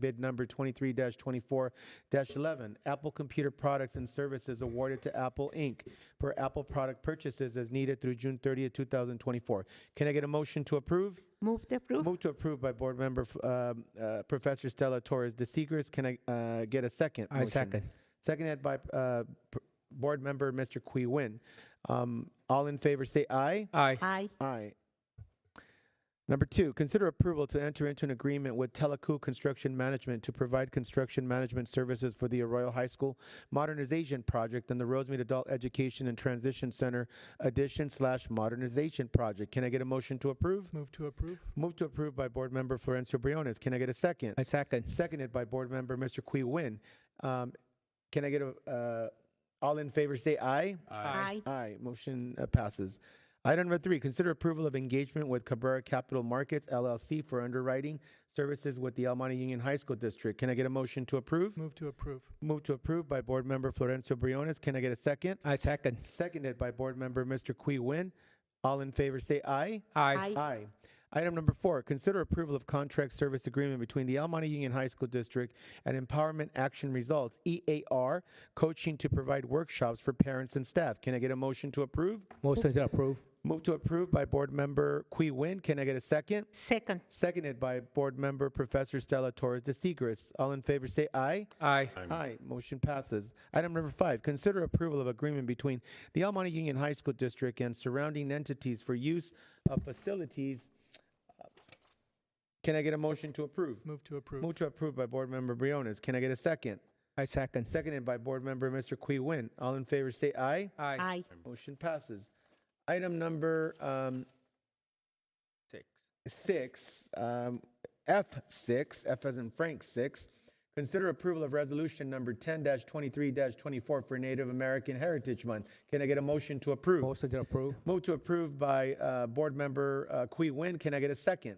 bid number 23-24-11, Apple Computer Products and Services awarded to Apple Inc. for Apple product purchases as needed through June 30th, 2024. Can I get a motion to approve? Move to approve. Move to approve by Board Member f- um, uh, Professor Stella Torres de Seegers. Can I uh, get a second? I motion? second. Seconded by uh, P- Board Member Mr. Qui Win. Um, All in favor, say aye. Aye. Aye. Aye. Number two, consider approval to enter into an agreement with Teleco Construction Management to provide construction management services for the Arroyo High School Modernization Project and the Rosemead Adult Education and Transition Center Addition slash Modernization Project. Can I get a motion to approve? Move to approve. Move to approve by Board Member Florencio Briones. Can I get a second? I second. Seconded by Board Member Mr. Qui Win. Um, Can I get a, uh, all in favor, say aye. Aye. Aye, motion uh, passes. Item number three, consider approval of engagement with Cabrera Capital Markets LLC for underwriting services with the El Monte Union High School District. Can I get a motion to approve? Move to approve. Move to approve by Board Member Florencio Briones. Can I get a second? I second. Seconded by Board Member Mr. Qui Win. All in favor, say aye. Aye. Aye. Item number four, consider approval of contract service agreement between the El Monte Union High School District and Empowerment Action Results, EAR, coaching to provide workshops for parents and staff. Can I get a motion to approve? Motion to approve. Move to approve by Board Member Qui Win. Can I get a second? Second. Seconded by Board Member Professor Stella Torres de Seigres. All in favor, say aye. Aye. Aye, motion passes. Item number five, consider approval of agreement between the El Monte Union High School District and surrounding entities for use of facilities. Can I get a motion to approve? Move to approve. Move to approve by Board Member Briones. Can I get a second? I second. Seconded by Board Member Mr. Qui Win. All in favor, say aye. Aye. Aye. Motion passes. Item number um, Six. six, um, F six, F as in Frank six. Consider approval of resolution number ten twenty-three twenty-four for Native American Heritage Month. Can I get a motion to approve? Motion to approve. Move to approve by, uh, Board Member, uh, Qui Win. Can I get a second?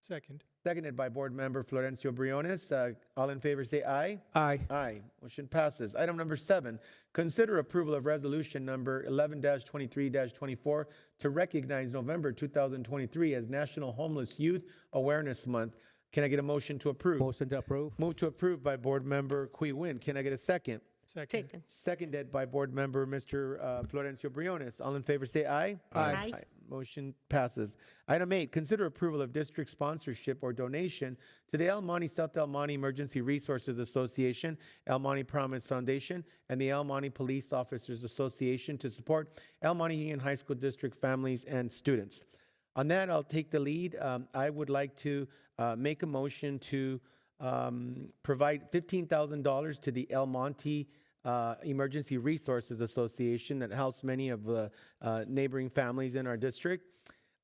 Second. Seconded by Board Member Florencio Briones. Uh, all in favor, say aye. Aye. Aye. Motion passes. Item number seven, consider approval of resolution number eleven twenty-three twenty-four to recognize November two thousand twenty-three as National Homeless Youth Awareness Month. Can I get a motion to approve? Motion to approve. Move to approve by Board Member Qui Win. Can I get a second? Second. Second. Seconded by Board Member Mr. uh, Florencio Briones. All in favor, say aye. Aye. Aye. Motion passes. Item eight, consider approval of district sponsorship or donation to the El Monte South El Monte Emergency Resources Association, El Monte Promise Foundation, and the El Monte Police Officers Association to support El Monte Union High School District families and students. On that, I'll take the lead. Um, I would like to uh, make a motion to um, provide $15,000 to the El Monte uh, Emergency Resources Association that helps many of the uh, neighboring families in our district.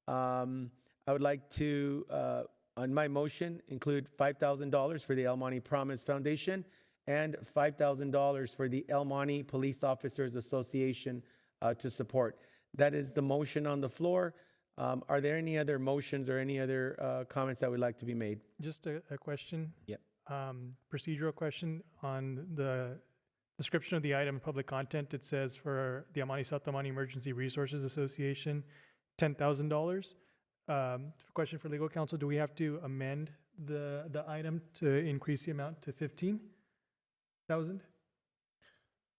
Um, I would like to, uh, on my motion, include $5,000 for the El Monte Promise Foundation and $5,000 for the El Monte Police Officers Association uh, to support. That is the motion on the floor. Um, Are there any other motions or any other uh, comments that would like to be made? Just a, a question. Yep. Um, procedural question on the description of the item in public content. It says for the Amani Satamani Emergency Resources Association, ten thousand dollars. Um, question for legal counsel, do we have to amend the, the item to increase the amount to fifteen thousand?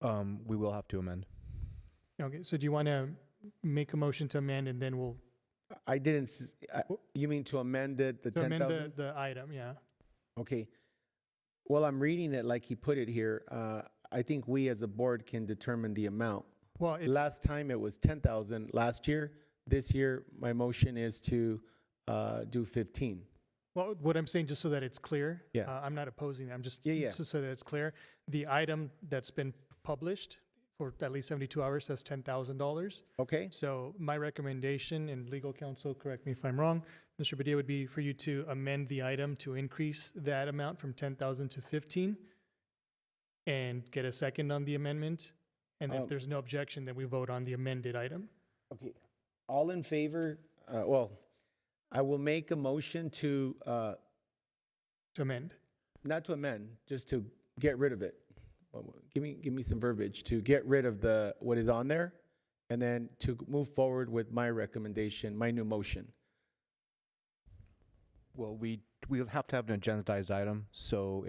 Um, we will have to amend. Okay, so do you want to make a motion to amend and then we'll I didn't, s- I- you mean to amend it, the to amend the, 10,000? the item, yeah? Okay. Well, I'm reading it like he put it here. Uh, I think we as a board can determine the amount. Well, it's. Last time it was 10,000 last year. This year, my motion is to uh, do 15. Well, what I'm saying, just so that it's clear. Yeah. uh, I'm not opposing, I'm just. Yeah, yeah. So so that it's clear, the item that's been published for at least 72 hours says $10,000. Okay? So my recommendation, and legal counsel, correct me if I'm wrong, Mr. Padilla, would be for you to amend the item to increase that amount from 10,000 to 15 and get a second on the amendment. And Um, if there's no objection, then we vote on the amended item. Okay. All in favor, uh, well, I will make a motion to, uh, to amend. not to amend, just to get rid of it. Well, well, Give me, give me some verbiage to get rid of the, what is on there, and then to move forward with my recommendation, my new motion. Well, we we'll have to have an agendized item, so